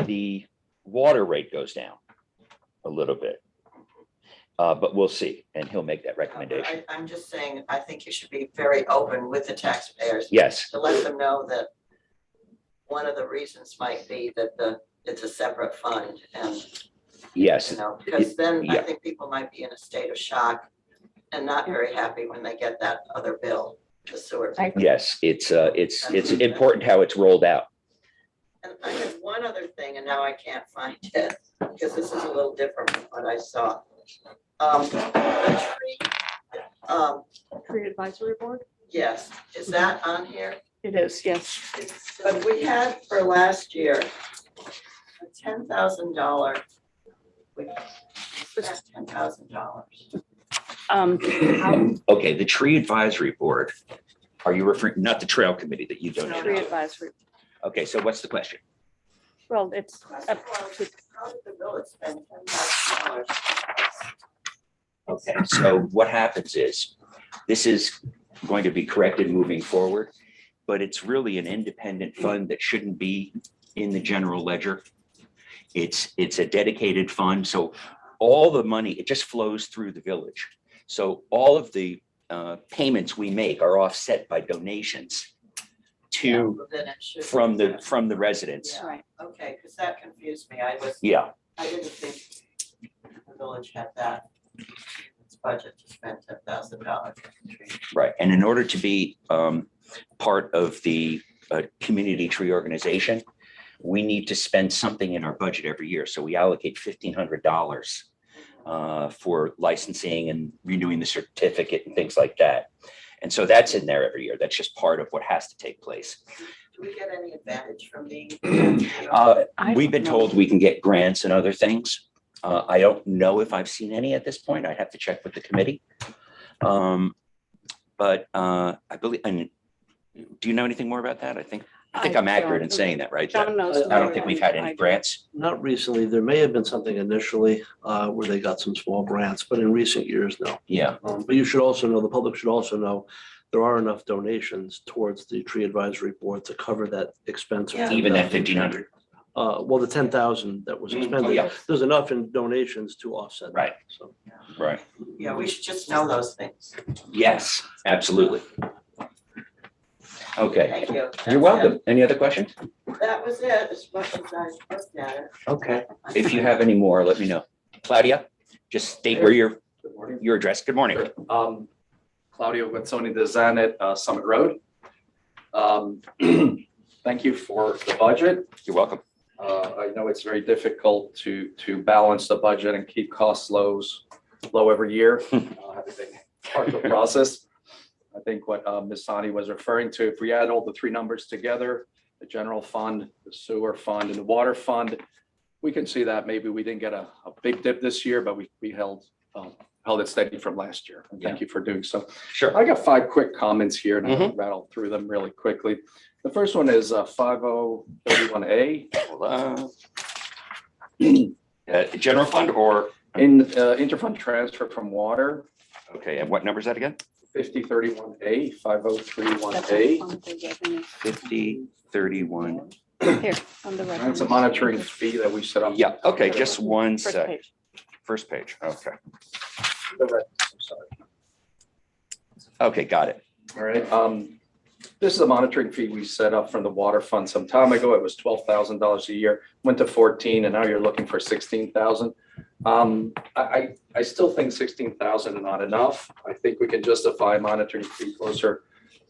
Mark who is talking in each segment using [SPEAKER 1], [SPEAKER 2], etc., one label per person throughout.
[SPEAKER 1] the water rate goes down a little bit. Uh, but we'll see, and he'll make that recommendation.
[SPEAKER 2] I, I'm just saying, I think you should be very open with the taxpayers
[SPEAKER 1] Yes,
[SPEAKER 2] to let them know that one of the reasons might be that the, it's a separate fund and, you
[SPEAKER 1] yes,
[SPEAKER 2] know, because then I
[SPEAKER 1] Yeah.
[SPEAKER 2] think people might be in a state of shock and not very happy when they get that other bill, the sewer.
[SPEAKER 3] I-
[SPEAKER 1] yes, it's, uh, it's, it's important how it's rolled out.
[SPEAKER 2] And I had one other thing, and now I can't find it, because this is a little different from what I saw. Um, the tree, um,
[SPEAKER 3] Tree Advisory Board?
[SPEAKER 2] yes, is that on here?
[SPEAKER 3] It is, yes.
[SPEAKER 2] But we had for last year, a ten thousand dollar. We spent ten thousand dollars.
[SPEAKER 3] Um, how-
[SPEAKER 1] Okay, the tree advisory board, are you referring, not the trail committee that you
[SPEAKER 3] Tree
[SPEAKER 1] donated to?
[SPEAKER 3] Advisory,
[SPEAKER 1] Okay, so what's the question?
[SPEAKER 3] well, it's up to,
[SPEAKER 2] How did the village spend ten thousand dollars?
[SPEAKER 1] Okay, so what happens is, this is going to be corrected moving forward, but it's really an independent fund that shouldn't be in the general ledger. It's, it's a dedicated fund, so all the money, it just flows through the village. So all of the uh, payments we make are offset by donations to,
[SPEAKER 2] Then it should be-
[SPEAKER 1] from the, from the residents.
[SPEAKER 2] Yeah.
[SPEAKER 3] right,
[SPEAKER 2] Okay, because that confused me. I was,
[SPEAKER 1] Yeah,
[SPEAKER 2] I didn't think the village had that. Its budget to spend ten thousand dollars.
[SPEAKER 1] Right, and in order to be um, part of the uh, community tree organization, we need to spend something in our budget every year. So we allocate fifteen hundred dollars uh, for licensing and renewing the certificate and things like that. And so that's in there every year. That's just part of what has to take place.
[SPEAKER 2] Do we get any advantage from being?
[SPEAKER 1] Uh,
[SPEAKER 3] I
[SPEAKER 1] We've
[SPEAKER 3] don't
[SPEAKER 1] been
[SPEAKER 3] know.
[SPEAKER 1] told we can get grants and other things. Uh, I don't know if I've seen any at this point. I'd have to check with the committee. Um, But uh, I believe, and do you know anything more about that? I think, I think I'm accurate in
[SPEAKER 3] don't-
[SPEAKER 1] saying that, right? That
[SPEAKER 3] John knows.
[SPEAKER 1] I
[SPEAKER 3] more
[SPEAKER 1] don't think we've had
[SPEAKER 3] than I
[SPEAKER 1] any
[SPEAKER 3] do.
[SPEAKER 1] grants.
[SPEAKER 4] Not recently. There may have been something initially uh, where they got some small grants, but in recent years, no.
[SPEAKER 1] Yeah,
[SPEAKER 4] Um, But you should also know, the public should also know, there are enough donations towards the tree advisory board to cover that expense. of
[SPEAKER 2] Yeah.
[SPEAKER 1] even that
[SPEAKER 4] 10,000.
[SPEAKER 1] fifteen hundred,
[SPEAKER 4] Uh, Well, the ten thousand that was
[SPEAKER 1] Mm, oh,
[SPEAKER 4] expended,
[SPEAKER 1] yeah.
[SPEAKER 4] there's enough in donations to offset. that,
[SPEAKER 1] Right.
[SPEAKER 4] So.
[SPEAKER 1] right?
[SPEAKER 2] Yeah, we should just know those things.
[SPEAKER 1] Yes, absolutely. Okay,
[SPEAKER 2] Thank you.
[SPEAKER 1] you're welcome. Any other questions?
[SPEAKER 2] That was it, as much as I looked at it.
[SPEAKER 1] Okay. If you have any more, let me know. Claudia, just state where your,
[SPEAKER 5] Good morning.
[SPEAKER 1] your address. Good morning.
[SPEAKER 5] Um, Claudio Guazzoni, Design at uh, Summit Road. Um, Thank you for the budget.
[SPEAKER 1] You're welcome.
[SPEAKER 5] Uh, I know it's very difficult to, to balance the budget and keep costs lows, low every year. Uh, It's a Part of the process. I think what uh, Ms. Sani was referring to, if we add all the three numbers together, the general fund, the sewer fund, and the water fund, we can see that maybe we didn't get a, a big dip this year, but we, we held, um, held it steady from last year. And Thank you for doing so.
[SPEAKER 1] Sure.
[SPEAKER 5] I got five quick comments here and I'll rattle through them really quickly. The first one is five oh thirty-one A
[SPEAKER 1] Uh, uh, General fund or,
[SPEAKER 5] in uh, interfund transfer from water,
[SPEAKER 1] okay, and what number is that again?
[SPEAKER 5] fifty thirty-one A, five oh three one
[SPEAKER 3] That's
[SPEAKER 5] A.
[SPEAKER 3] on the revenue.
[SPEAKER 1] Fifty thirty-one.
[SPEAKER 3] Here, on the revenue.
[SPEAKER 5] It's a monitoring fee that we set up.
[SPEAKER 1] Yeah, okay, just one
[SPEAKER 3] First
[SPEAKER 1] sec.
[SPEAKER 3] page.
[SPEAKER 1] First page, okay.
[SPEAKER 5] The rest, I'm sorry.
[SPEAKER 1] Okay, got it.
[SPEAKER 5] All right, um, this is a monitoring fee we set up from the water fund some time ago. It was twelve thousand dollars a year, went to fourteen, and now you're looking for sixteen thousand. Um, I, I, I still think sixteen thousand is not enough. I think we can justify a monitoring fee closer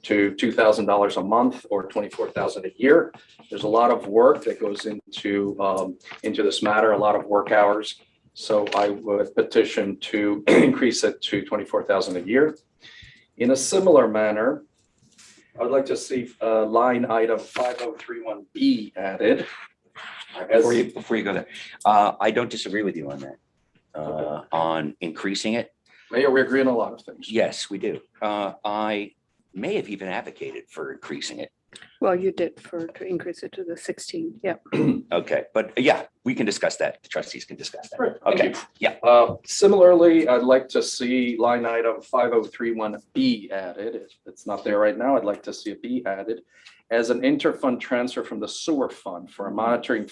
[SPEAKER 5] to two thousand dollars a month or twenty-four thousand a year. There's a lot of work that goes into, um, into this matter, a lot of work hours. So I would petition to increase it to twenty-four thousand a year. In a similar manner, I would like to see uh, line item 5031B added. as-
[SPEAKER 1] Before you, before you go there, uh, I don't disagree with you on that. Uh, on increasing it,
[SPEAKER 5] Mayor, we agree on a lot of things.
[SPEAKER 1] yes, we do. Uh, I may have even advocated for increasing it.
[SPEAKER 3] Well, you did for, to increase it to the sixteen, yeah.
[SPEAKER 1] Okay, but yeah, we can discuss that. The trustees can discuss that.
[SPEAKER 5] Right, thank
[SPEAKER 1] Okay,
[SPEAKER 5] you.
[SPEAKER 1] yeah.
[SPEAKER 5] Uh, Similarly, I'd like to see line item 5031B added. It's- It's not there right now. I'd like to see a B added as an interfund transfer from the sewer fund for a monitoring